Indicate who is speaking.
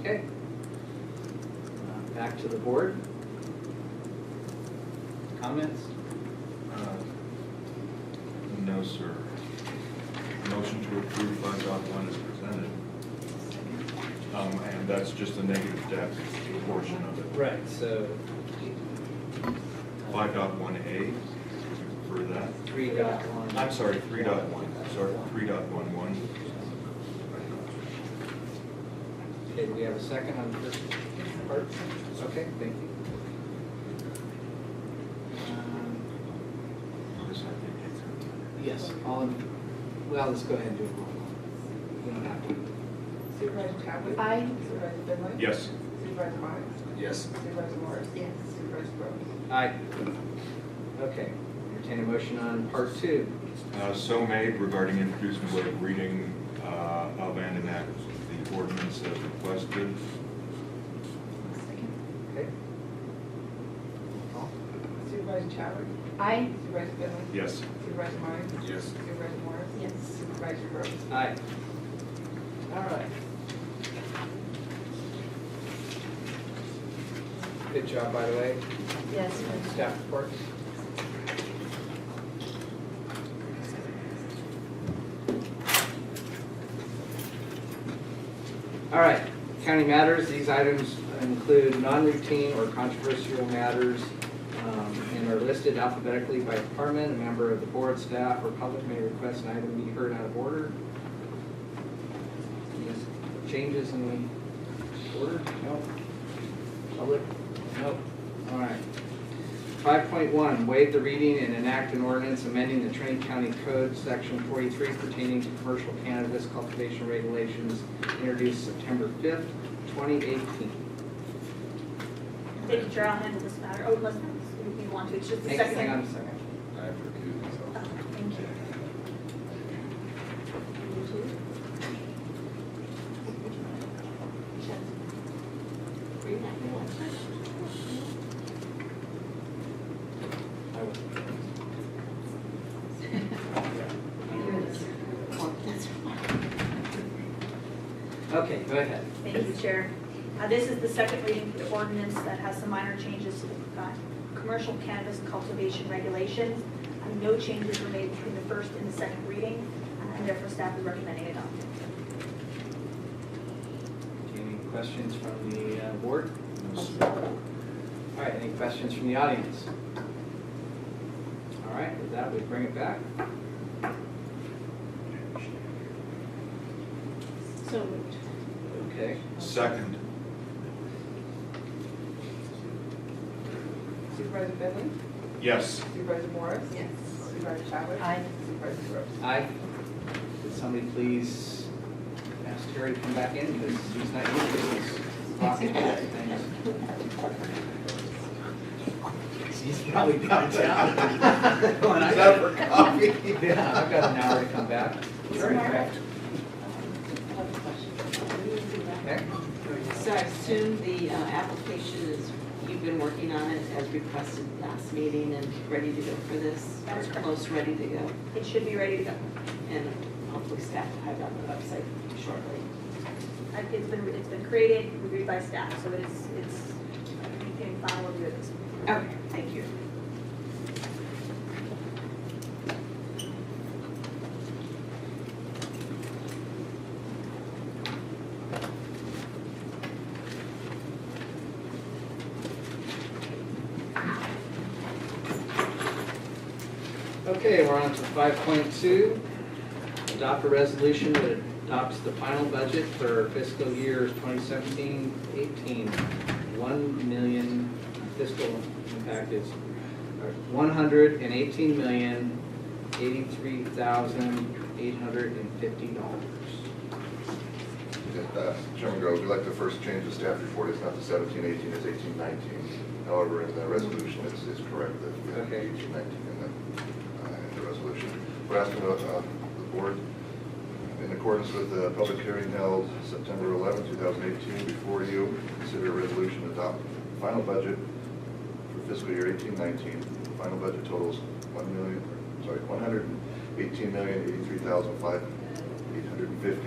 Speaker 1: Okay. Uh, Back to the board. Comments?
Speaker 2: Uh, Um, No, sir. Motion to approve five dot one is presented. Um, and that's just the negative debt portion of it.
Speaker 1: Right. So.
Speaker 2: Five dot one A, for that.
Speaker 1: Three dot one.
Speaker 2: I'm sorry, three dot one, sorry, three dot one one.
Speaker 1: Okay, do we have a second on the first part? Okay, thank you. Um, Yes, all in, well, let's go ahead and do a roll call. We don't have to.
Speaker 3: Supervisor Chadwick?
Speaker 4: Aye.
Speaker 3: Supervisor Finley?
Speaker 2: Yes,
Speaker 3: Supervisor Myers?
Speaker 1: Yes.
Speaker 3: Supervisor Morris? Yes. Supervisor Brooks?
Speaker 1: Aye. Okay, entertain a motion on part two.
Speaker 2: uh, so made regarding introducing the way of reading, uh, of and enact the ordinance as requested.
Speaker 4: Second.
Speaker 1: Okay? Roll call.
Speaker 3: Supervisor Chadwick?
Speaker 4: Aye.
Speaker 3: Supervisor Finley?
Speaker 2: Yes.
Speaker 3: Supervisor Myers?
Speaker 2: Yes.
Speaker 3: Supervisor Morris?
Speaker 4: Yes.
Speaker 3: Supervisor Brooks?
Speaker 1: Aye. All right. Good job, by the way.
Speaker 4: Yes.
Speaker 1: Staff report. All right, county matters, these items include non-routine or controversial matters um, and are listed alphabetically by department. A member of the board, staff, or public may request an item be heard out of order. Any Changes in the order? No. Public? No. All right. Five point one, waive the reading and enact an ordinance amending the Trent County Code, section forty-three pertaining to commercial cannabis cultivation regulations introduced September fifth, twenty eighteen.
Speaker 4: David Gerald handled this matter. Oh, unless you want to, it's just the
Speaker 1: Hang
Speaker 4: second.
Speaker 1: hang on a second.
Speaker 2: I have recused myself.
Speaker 4: Oh, Thank you. You too. Read that one.
Speaker 1: I will- Okay, go ahead.
Speaker 4: Thank you, Chair. Uh, This is the second reading for the ordinance that has some minor changes to the uh, commercial cannabis cultivation regulations. Uh, No changes were made between the first and the second reading, uh, and therefore staff is recommending adoption.
Speaker 1: Any questions from the uh, board?
Speaker 2: No, sir.
Speaker 1: All right, any questions from the audience? All right, with that, we bring it back.
Speaker 4: So moved.
Speaker 1: Okay.
Speaker 2: Second,
Speaker 3: Supervisor Finley?
Speaker 2: yes.
Speaker 3: Supervisor Morris? Yes. Supervisor Chadwick?
Speaker 4: Aye.
Speaker 3: Supervisor Brooks?
Speaker 1: Aye. Could somebody please ask Terry to come back in, because he's not here, he's blocking things. He's probably downtown. When I got- Yeah, I've got an hour to come back. Sure, in fact. Okay.
Speaker 5: So I assume the uh, application is, you've been working on it as requested last meeting and ready to go for this?
Speaker 4: That's correct.
Speaker 5: Or close, ready to go,
Speaker 4: It should be ready to go.
Speaker 5: and hopefully staff will have it on the website shortly.
Speaker 4: Uh, It's been, it's been created, reviewed by staff, so it's, it's, you can file review this.
Speaker 5: Okay, thank you.
Speaker 1: Okay, we're on to five point two. Adopt a resolution that adopts the final budget for fiscal years 2017-18. One million fiscal impact is uh, one hundred and eighteen million, eighty-three thousand, eight hundred and fifty dollars.
Speaker 6: Uh, Chairman Groves, we'd like to first change the staff report, it's not the seventeen eighteen, it's eighteen nineteen. However, in the resolution, it's, it's correct that we have
Speaker 1: Okay.
Speaker 6: eighteen nineteen in the, uh, in the resolution. We're asking the, uh, the board, in accordance with the public hearing held September eleventh, two thousand eighteen, before you, consider a resolution to adopt final budget for fiscal year eighteen nineteen. Final budget totals one million, sorry, one hundred and eighteen million, eighty-three thousand, five, eight hundred and fifty.